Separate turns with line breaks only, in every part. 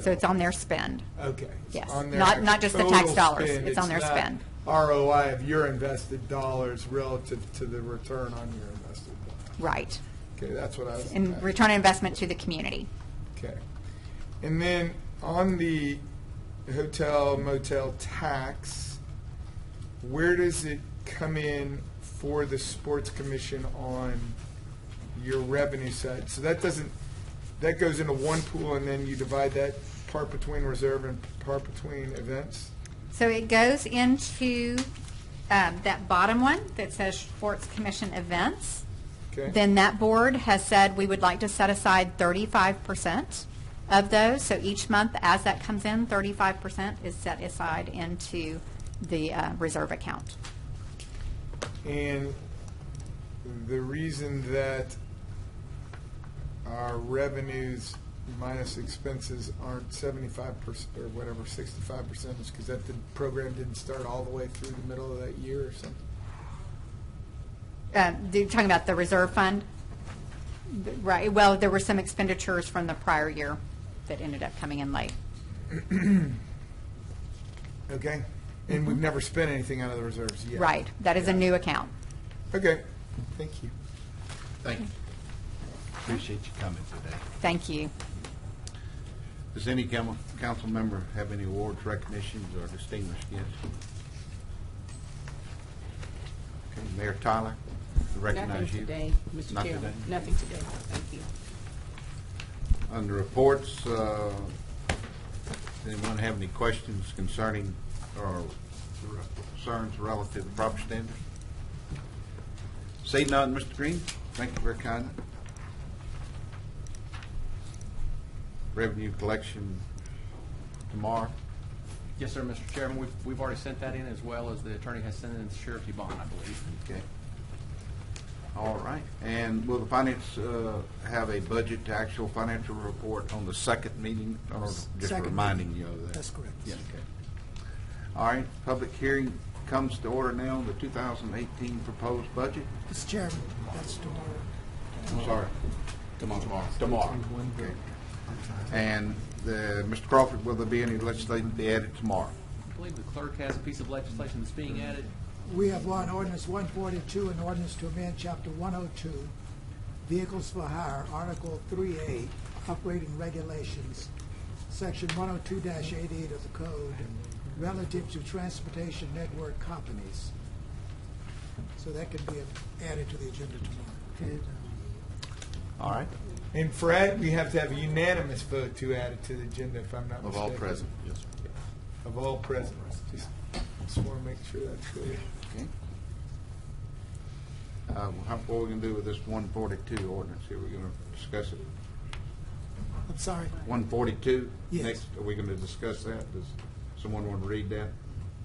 So it's on their spend.
Okay. it's
Yes,
on their
not- not just the tax
total
dollars,
spend.
it's on their
not
spend.
ROI of your invested dollars relative to the return on your invested dollars.
Right.
Okay, that's what I was.
And return on investment to the community.
Okay. And then on the hotel motel tax, where does it come in for the sports commission on your revenue side? So that doesn't, that goes into one pool and then you divide that part between reserve and part between events?
So it goes into um, that bottom one that says Sports Commission events.
Okay?
Then that board has said we would like to set aside thirty-five percent of those. So each month, as that comes in, thirty-five percent is set aside into the uh, reserve account.
And the reason that our revenues minus expenses aren't seventy-five percent, or whatever, sixty-five percent, is because that the program didn't start all the way through the middle of that year or something?
Uh, You're talking about the reserve fund? Right, well, there were some expenditures from the prior year that ended up coming in late.
Okay? And we've never spent anything out of the reserves yet.
Mm-hmm. Right, that is a new account.
Okay, thank you.
Thank you. Appreciate you coming today.
Thank you.
Does any cam- council member have any awards, recognitions, or distinguished gifts? Okay, Mayor Tyler, I
Nothing
recognize you.
today, Mr.
Not
Chairman.
today?
Nothing today. Thank you.
Under reports, uh, anyone have any questions concerning or concerns relative to property standards? See none, Mr. Green, thank you very kindly. Revenue collection tomorrow.
Yes, sir, Mr. Chairman, we've, we've already sent that in, as well as the attorney has sent in the surety bond, I believe.
Okay. All right, and will the finance uh, have a budget to actual financial report on the second meeting, or just
Second
reminding you of that?
That's correct.
Yeah, okay. All right, public hearing comes to order now, on the 2018 proposed budget.
Mr. Chairman, that's tomorrow.
I'm sorry. Tomorrow. Tomorrow. Okay. And uh, Mr. Crawford, will there be any legislation to be added tomorrow?
I believe the clerk has a piece of legislation that's being added.
We have law and ordinance one forty-two, an ordinance to amend chapter one oh two, vehicles for hire, article three A, operating regulations, section one oh two eighty-eight of the code relative to transportation network companies. So that can be added to the agenda tomorrow.
All right.
And Fred, we have to have a unanimous vote to add it to the agenda, if I'm not
Of
mistaken.
all present, yes, sir.
Of all present, just, just want to make sure that's clear.
Okay. Uh, how- What are we going to do with this 142 ordinance here? We're going to discuss it.
I'm sorry,
142?
Yes.
Next, Are we going to discuss that? Does someone want to read that?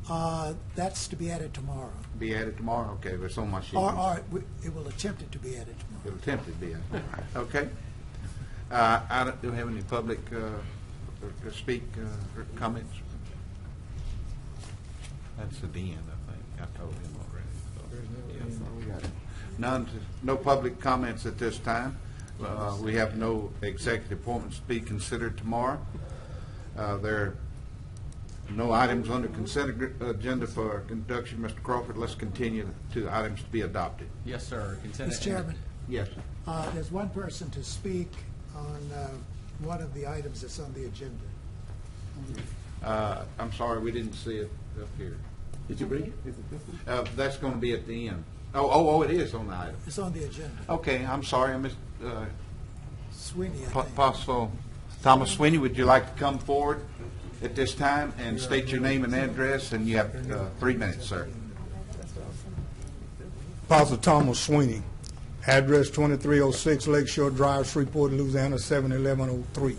uh, that's to be added tomorrow,
Be added tomorrow? Okay, it's on my sheet.
or, or it w- it will attempt it to be added tomorrow.
It'll attempt to be added. Okay. Uh, I don't, do we have any public uh, or- or speak uh, or comments? That's at the end, I think. I told him already. so- Yeah, so we got it. None, no public comments at this time. Uh, We have no executive appointments to be considered tomorrow. Uh, There are no items under consent agr- agenda for conduction. Mr. Crawford, let's continue to items to be adopted.
Yes, sir. Consent-
Mr. Chairman.
Yes, sir.
Uh, There's one person to speak on uh, one of the items that's on the agenda.
Uh, I'm sorry, we didn't see it up here. Did you read it? Uh, that's going to be at the end. Oh, oh, oh, it is on the item.
It's on the agenda.
Okay, I'm sorry, I missed, uh,
Sweeney, I
Po-
think.
Apostle Thomas Sweeney, would you like to come forward at this time and state your name and address? And you have, uh, three minutes, sir.
Apostle Thomas Sweeney, address 2306 Lakeshore Drive, Shreveport, Louisiana, 71103.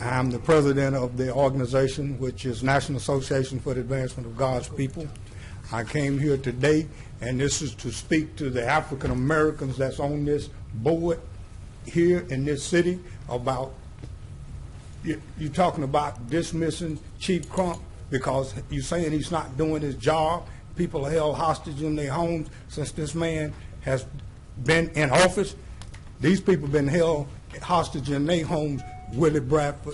I'm the president of the organization, which is National Association for the Advancement of God's People. I came here today, and this is to speak to the African Americans that's on this board here in this city about you- you're talking about dismissing Chief Crump because you're saying he's not doing his job. People are held hostage in their homes since this man has been in office. These people been held hostage in their homes, Willie Bradford.